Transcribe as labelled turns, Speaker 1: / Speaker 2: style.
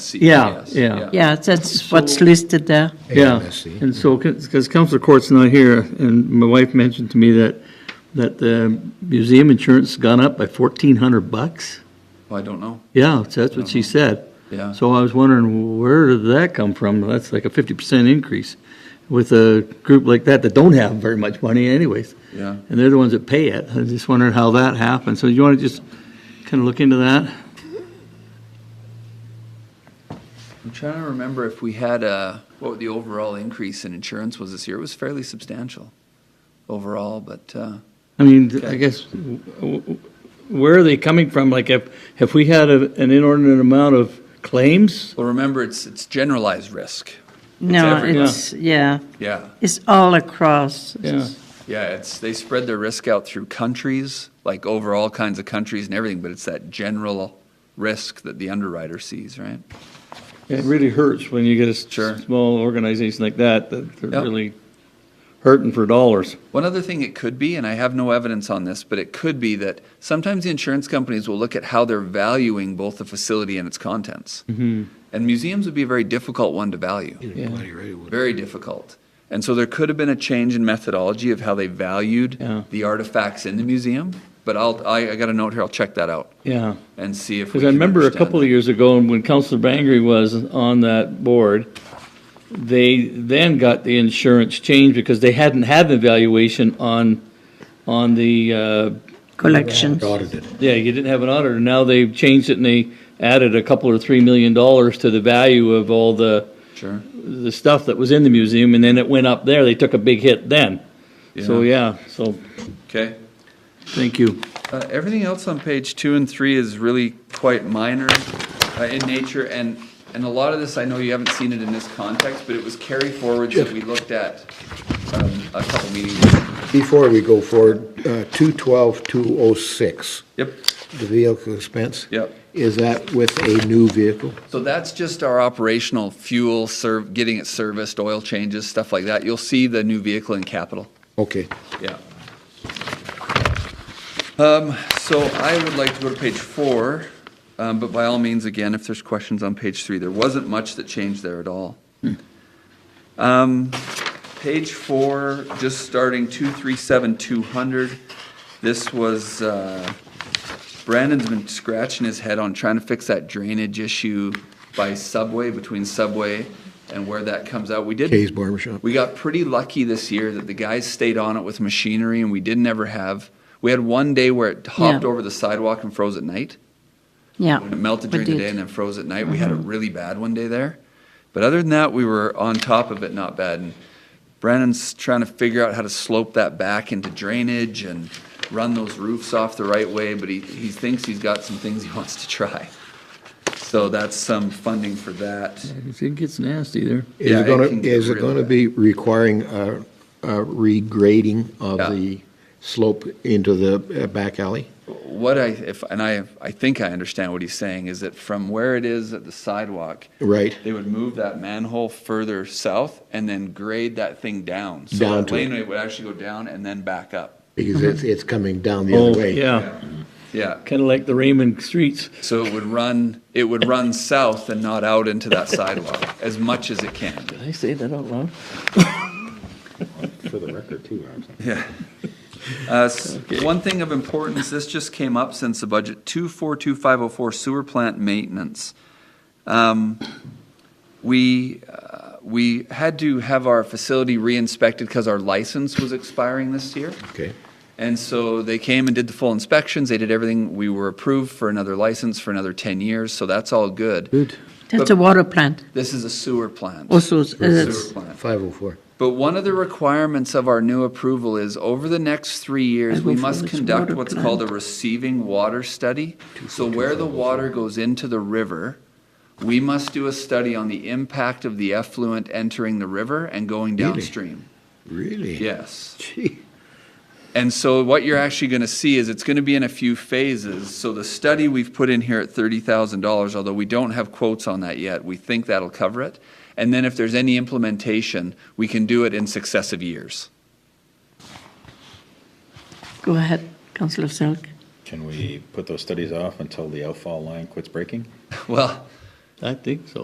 Speaker 1: C.
Speaker 2: Yeah,
Speaker 1: yes,
Speaker 2: yeah.
Speaker 3: Yeah, that's what's listed there.
Speaker 2: Yeah,
Speaker 4: AMSC.
Speaker 2: and so, because Counselor Court's not here, and my wife mentioned to me that, that the museum insurance gone up by fourteen hundred bucks?
Speaker 1: Well, I don't know,
Speaker 2: Yeah, so that's what she said.
Speaker 1: yeah.
Speaker 2: So I was wondering, where did that come from? That's like a fifty percent increase with a group like that that don't have very much money anyways.
Speaker 1: Yeah.
Speaker 2: And they're the ones that pay it. I just wondered how that happened. So you want to just kind of look into that?
Speaker 1: I'm trying to remember if we had a, what the overall increase in insurance was this year. It was fairly substantial overall, but, uh,
Speaker 2: I mean, I guess, w- w- where are they coming from? Like, if, if we had a- an inordinate amount of claims?
Speaker 1: well, remember, it's, it's generalized risk.
Speaker 3: No,
Speaker 1: everywhere.
Speaker 3: it's, yeah,
Speaker 1: Yeah,
Speaker 3: it's all across.
Speaker 2: Yeah.
Speaker 1: yeah, it's, they spread their risk out through countries, like over all kinds of countries and everything, but it's that general risk that the underwriter sees, right?
Speaker 2: It really hurts when you get a
Speaker 1: Sure.
Speaker 2: s- small organization like that, that they're
Speaker 1: Yep.
Speaker 2: really hurting for dollars.
Speaker 1: One other thing it could be, and I have no evidence on this, but it could be that sometimes the insurance companies will look at how they're valuing both the facility and its contents.
Speaker 2: Mm-hmm.
Speaker 1: And museums would be a very difficult one to value,
Speaker 4: Bloody right it would.
Speaker 1: very difficult. And so there could have been a change in methodology of how they valued
Speaker 2: Yeah.
Speaker 1: the artifacts in the museum. But I'll, I, I got a note here, I'll check that out
Speaker 2: Yeah.
Speaker 1: and see if we
Speaker 2: Because I
Speaker 1: can
Speaker 2: remember a
Speaker 1: understand
Speaker 2: couple
Speaker 1: that.
Speaker 2: of years ago, and when Counselor Bangry was on that board, they then got the insurance changed because they hadn't had an evaluation on, on the, uh,
Speaker 3: Collections.
Speaker 4: Audited.
Speaker 2: Yeah, you didn't have an auditor. Now they've changed it and they added a couple or three million dollars to the value of all the,
Speaker 1: Sure.
Speaker 2: the stuff that was in the museum and then it went up there. They took a big hit then. So, yeah, so.
Speaker 1: Okay.
Speaker 2: Thank you.
Speaker 1: Uh, Everything else on page two and three is really quite minor uh, in nature, and, and a lot of this, I know you haven't seen it in this context, but it was carry forwards that we looked at um, a couple meetings. ago.
Speaker 4: Before we go forward, uh, 212-206,
Speaker 1: Yep,
Speaker 4: the vehicle expense?
Speaker 1: Yep.
Speaker 4: Is that with a new vehicle?
Speaker 1: so that's just our operational fuel, serv, getting it serviced, oil changes, stuff like that. You'll see the new vehicle in capital.
Speaker 4: Okay.
Speaker 1: Yeah. Um, so I would like to go to page four, um, but by all means, again, if there's questions on page three, there wasn't much that changed there at all. Um, page four, just starting two, three, seven, two hundred. This was, uh, Brandon's been scratching his head on trying to fix that drainage issue by Subway, between Subway and where that comes out. We did.
Speaker 4: Kay's Barber Shop.
Speaker 1: We got pretty lucky this year that the guys stayed on it with machinery and we didn't ever have, we had one day where it hopped
Speaker 3: Yeah.
Speaker 1: over the sidewalk and froze at night.
Speaker 3: Yeah.
Speaker 1: When it melted
Speaker 3: we
Speaker 1: during the
Speaker 3: did. Mm-hmm.
Speaker 1: day and then froze at night. We had a really bad one day there. But other than that, we were on top of it, not bad. And Brandon's trying to figure out how to slope that back into drainage and run those roofs off the right way, but he, he thinks he's got some things he wants to try. So that's some funding for that.
Speaker 2: It gets nasty there.
Speaker 4: Is
Speaker 1: Yeah,
Speaker 4: it
Speaker 1: it
Speaker 4: gonna,
Speaker 1: can get
Speaker 4: is it
Speaker 1: really
Speaker 4: gonna
Speaker 1: bad.
Speaker 4: be requiring a a regrading
Speaker 1: Yeah.
Speaker 4: of the slope into the uh, back alley?
Speaker 1: What I, if, and I, I think I understand what he's saying, is that from where it is at the sidewalk,
Speaker 4: Right.
Speaker 1: they would move that manhole further south and then grade that thing down. So
Speaker 4: Down
Speaker 1: that
Speaker 4: to it.
Speaker 1: laneway would actually go down and then back up.
Speaker 4: Because it's, it's coming down the
Speaker 2: Mm-hmm. Oh,
Speaker 4: other way.
Speaker 2: yeah,
Speaker 1: Yeah,
Speaker 2: kind of like the Raymond streets.
Speaker 1: so it would run, it would run south and not out into that sidewalk as much as it can.
Speaker 2: Did I say that out loud?
Speaker 5: For the record, too, I'm
Speaker 1: Yeah. Uh, s- One thing of importance, this just came up since the budget, 242504 sewer plant maintenance. Um, We, uh, we had to have our facility re-inspected because our license was expiring this year.
Speaker 4: Okay.
Speaker 1: And so they came and did the full inspections, they did everything, we were approved for another license for another 10 years, so that's all good.
Speaker 4: Good.
Speaker 3: That's a water plant.
Speaker 1: This is a sewer plant.
Speaker 3: Also,
Speaker 1: Sewer
Speaker 3: Oh, it's,
Speaker 1: plant.
Speaker 4: 504.
Speaker 1: But one of the requirements of our new approval is over the next three years,
Speaker 3: I
Speaker 1: we
Speaker 3: vote for
Speaker 1: must
Speaker 3: this
Speaker 1: conduct
Speaker 3: water
Speaker 1: what's
Speaker 3: plant.
Speaker 1: called a receiving water study. So where the water goes into the river, we must do a study on the impact of the effluent entering the river and going
Speaker 4: Really?
Speaker 1: downstream.
Speaker 4: Really?
Speaker 1: Yes.
Speaker 4: Gee.
Speaker 1: And so what you're actually going to see is it's going to be in a few phases. So the study we've put in here at $30,000, although we don't have quotes on that yet, we think that'll cover it. And then if there's any implementation, we can do it in successive years.
Speaker 3: go ahead, Councillor Selk.
Speaker 5: Can we put those studies off until the outfall line quits breaking?
Speaker 1: Well,
Speaker 2: I think so.